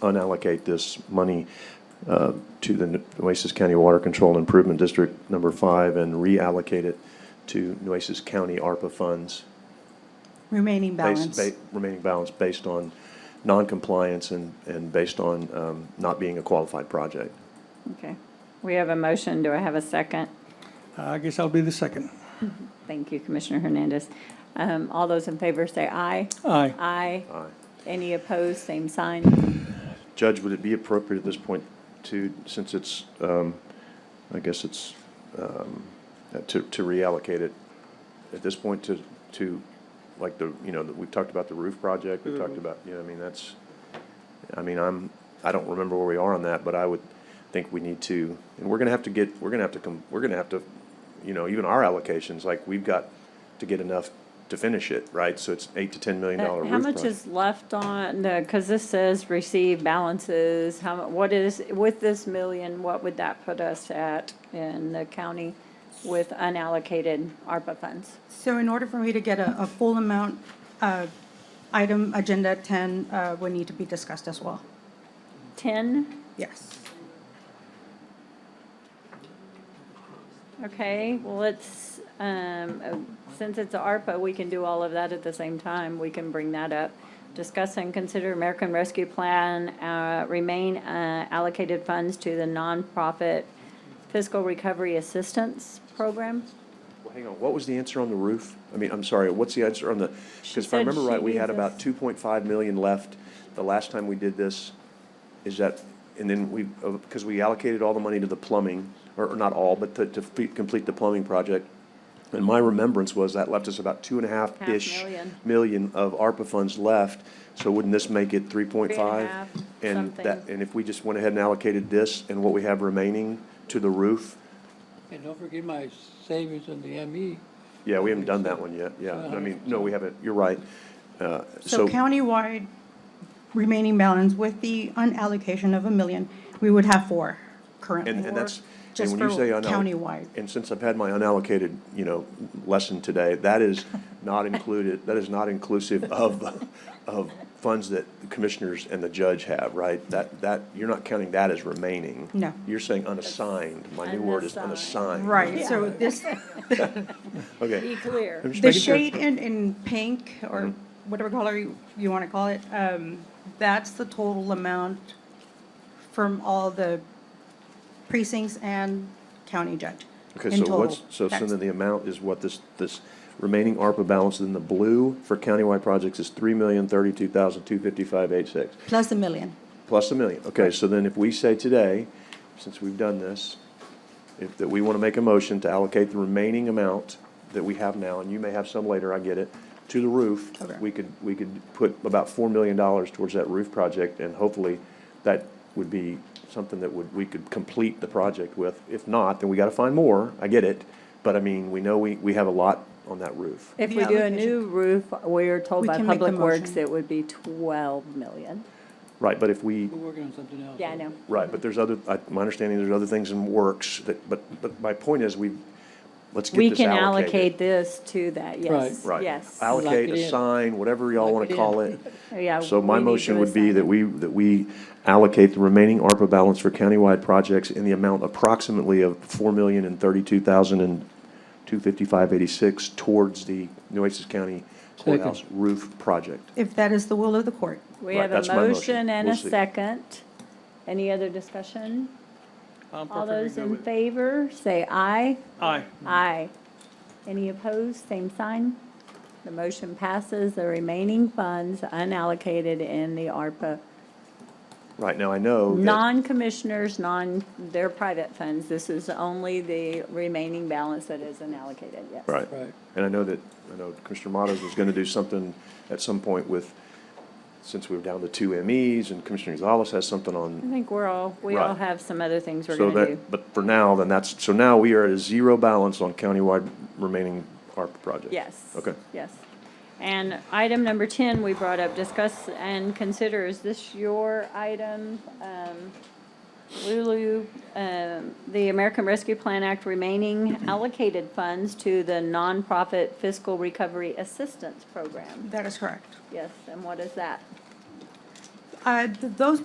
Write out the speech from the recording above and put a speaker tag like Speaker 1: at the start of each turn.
Speaker 1: unallocate this money uh, to the Nueces County Water Control and Improvement District Number Five and reallocate it to Nueces County ARPA funds.
Speaker 2: Remaining
Speaker 1: based-
Speaker 2: balance.
Speaker 1: ba- Remaining balance based on non-compliance and, and based on um, not being a qualified project.
Speaker 2: Okay.
Speaker 3: We have a motion. Do I have a second?
Speaker 4: Uh, I guess I'll be the second.
Speaker 3: Thank you, Commissioner Hernandez. Um, all those in favor say aye.
Speaker 4: Aye.
Speaker 3: Aye.
Speaker 1: Aye.
Speaker 3: Any opposed, same sign.
Speaker 1: Judge, would it be appropriate at this point to, since it's, um, I guess it's, um, to, to reallocate it at this point to, to, like the, you know, that we've talked about the roof project, we've talked about, you know, I mean, that's, I mean, I'm, I don't remember where we are on that, but I would think we need to, and we're gonna have to get, we're gonna have to come, we're gonna have to, you know, even our allocations, like, we've got to get enough to finish it, right? So it's eight to ten million dollar roof
Speaker 3: How much
Speaker 1: project.
Speaker 3: is left on, because this says receive balances, how, mu- what is, with this million, what would that put us at in the county with unallocated ARPA funds?
Speaker 2: So in order for me to get a, a full amount, uh, item agenda ten, uh, would need to be discussed as well.
Speaker 3: Ten?
Speaker 2: Yes.
Speaker 3: Okay, well, it's, um, uh, since it's a ARPA, we can do all of that at the same time. We can bring that up. Discuss and consider American Rescue Plan, uh, remain, uh, allocated funds to the nonprofit fiscal recovery assistance program.
Speaker 1: Well, Hang on, what was the answer on the roof? I mean, I'm sorry, what's the answer on the, because if I
Speaker 3: said
Speaker 1: remember
Speaker 3: she
Speaker 1: right, we had
Speaker 3: needs
Speaker 1: about
Speaker 3: us-
Speaker 1: two point five million left the last time we did this. Is that, and then we, because we allocated all the money to the plumbing, or or not all, but to, to fe- complete the plumbing project. And my remembrance was that left us about two and a half-ish
Speaker 3: million.
Speaker 1: million of ARPA funds left, so wouldn't this make it three point five?
Speaker 3: half,
Speaker 1: And
Speaker 3: something.
Speaker 1: that, and if we just went ahead and allocated this and what we have remaining to the roof,
Speaker 5: And don't forget my savings in the E. ME.
Speaker 1: Yeah, we haven't done that one yet, yeah. I mean, no, we haven't, you're right. Uh,
Speaker 2: So
Speaker 1: So,
Speaker 2: countywide remaining balance with the unallocation of a million, we would have four currently.
Speaker 1: and, and that's, and
Speaker 2: Just
Speaker 1: when you
Speaker 2: for
Speaker 1: say unallocated,
Speaker 2: countywide.
Speaker 1: and since I've had my unallocated, you know, lesson today, that is not included, that is not inclusive of, of funds that the commissioners and the judge have, right? That, that, you're not counting that as remaining.
Speaker 2: No.
Speaker 1: You're saying unassigned, my new word is unassigned.
Speaker 3: Unassigned.
Speaker 2: Right, so this,
Speaker 3: Be
Speaker 1: Okay.
Speaker 3: clear.
Speaker 1: I'm just
Speaker 2: The
Speaker 1: making sure.
Speaker 2: shade in, in pink, or whatever color you, you wanna call it, um, that's the total amount from all the precincts and county judge.
Speaker 1: Okay,
Speaker 2: in
Speaker 1: so
Speaker 2: total.
Speaker 1: what's, so
Speaker 2: That's-
Speaker 1: Cindy, the amount is what this, this remaining ARPA balance in the blue for countywide projects is three million thirty-two thousand two fifty-five eight six,
Speaker 2: Plus a million.
Speaker 1: plus a million. Okay, so then if we say today, since we've done this, if, that we want to make a motion to allocate the remaining amount that we have now, and you may have some later, I get it, to the roof,
Speaker 2: Okay.
Speaker 1: we could, we could put about four million dollars towards that roof project, and hopefully that would be something that would, we could complete the project with. If not, then we got to find more, I get it, but I mean, we know we, we have a lot on that roof.
Speaker 3: If
Speaker 2: The
Speaker 3: we do a
Speaker 2: allocation.
Speaker 3: new roof, we're told
Speaker 2: We
Speaker 3: by
Speaker 2: can make the
Speaker 3: Public Works
Speaker 2: motion.
Speaker 3: it would be twelve million.
Speaker 1: Right, but if we,
Speaker 5: We're working on something else.
Speaker 3: Yeah, I know.
Speaker 1: Right, but there's other, I, my understanding, there's other things in works that, but, but my point is, we, let's get
Speaker 3: We
Speaker 1: this
Speaker 3: can allocate
Speaker 1: allocated.
Speaker 3: this to that, yes,
Speaker 1: Right.
Speaker 3: yes.
Speaker 1: Allocate,
Speaker 5: Lock it in.
Speaker 1: assign, whatever y'all
Speaker 5: Lock
Speaker 1: wanna
Speaker 5: it in.
Speaker 1: call it.
Speaker 3: Yeah,
Speaker 1: So my
Speaker 3: we need to
Speaker 1: motion would be
Speaker 3: assign
Speaker 1: that
Speaker 3: it.
Speaker 1: we, that we allocate the remaining ARPA balance for countywide projects in the amount approximately of four million and thirty-two thousand and two fifty-five eighty-six towards the Nueces County
Speaker 5: Second.
Speaker 1: courthouse roof project.
Speaker 2: If that is the will of the court.
Speaker 3: We
Speaker 1: Right,
Speaker 3: have
Speaker 1: that's
Speaker 3: a
Speaker 1: my motion.
Speaker 3: motion and a
Speaker 1: We'll see.
Speaker 3: second. Any other discussion?
Speaker 4: I'm perfectly
Speaker 3: All those
Speaker 4: good
Speaker 3: in
Speaker 4: with it.
Speaker 3: favor, say aye.
Speaker 4: Aye.
Speaker 3: Aye. Any opposed, same sign. The motion passes, the remaining funds unallocated in the ARPA.
Speaker 1: Right, now I know that,
Speaker 3: Non-commissioners, non, they're private funds, this is only the remaining balance that is unallocated, yes.
Speaker 1: right.
Speaker 5: Right.
Speaker 1: And I know that, I know Commissioner Mottos was gonna do something at some point with, since we were down to two MEs, and Commissioner Gonzalez has something
Speaker 3: I
Speaker 1: on.
Speaker 3: think we're all, we all
Speaker 1: Right.
Speaker 3: have some other things we're
Speaker 1: So
Speaker 3: gonna do.
Speaker 1: that, but for now, then that's, so now we are at a zero balance on countywide remaining ARPA projects.
Speaker 3: Yes.
Speaker 1: Okay.
Speaker 3: Yes. And item number ten, we brought up, discuss and consider, is this your item? Um, Lulu, um, the American Rescue Plan Act remaining allocated funds to the nonprofit fiscal recovery assistance program.
Speaker 2: That is correct.
Speaker 3: Yes, and what is that?
Speaker 2: Uh, th- those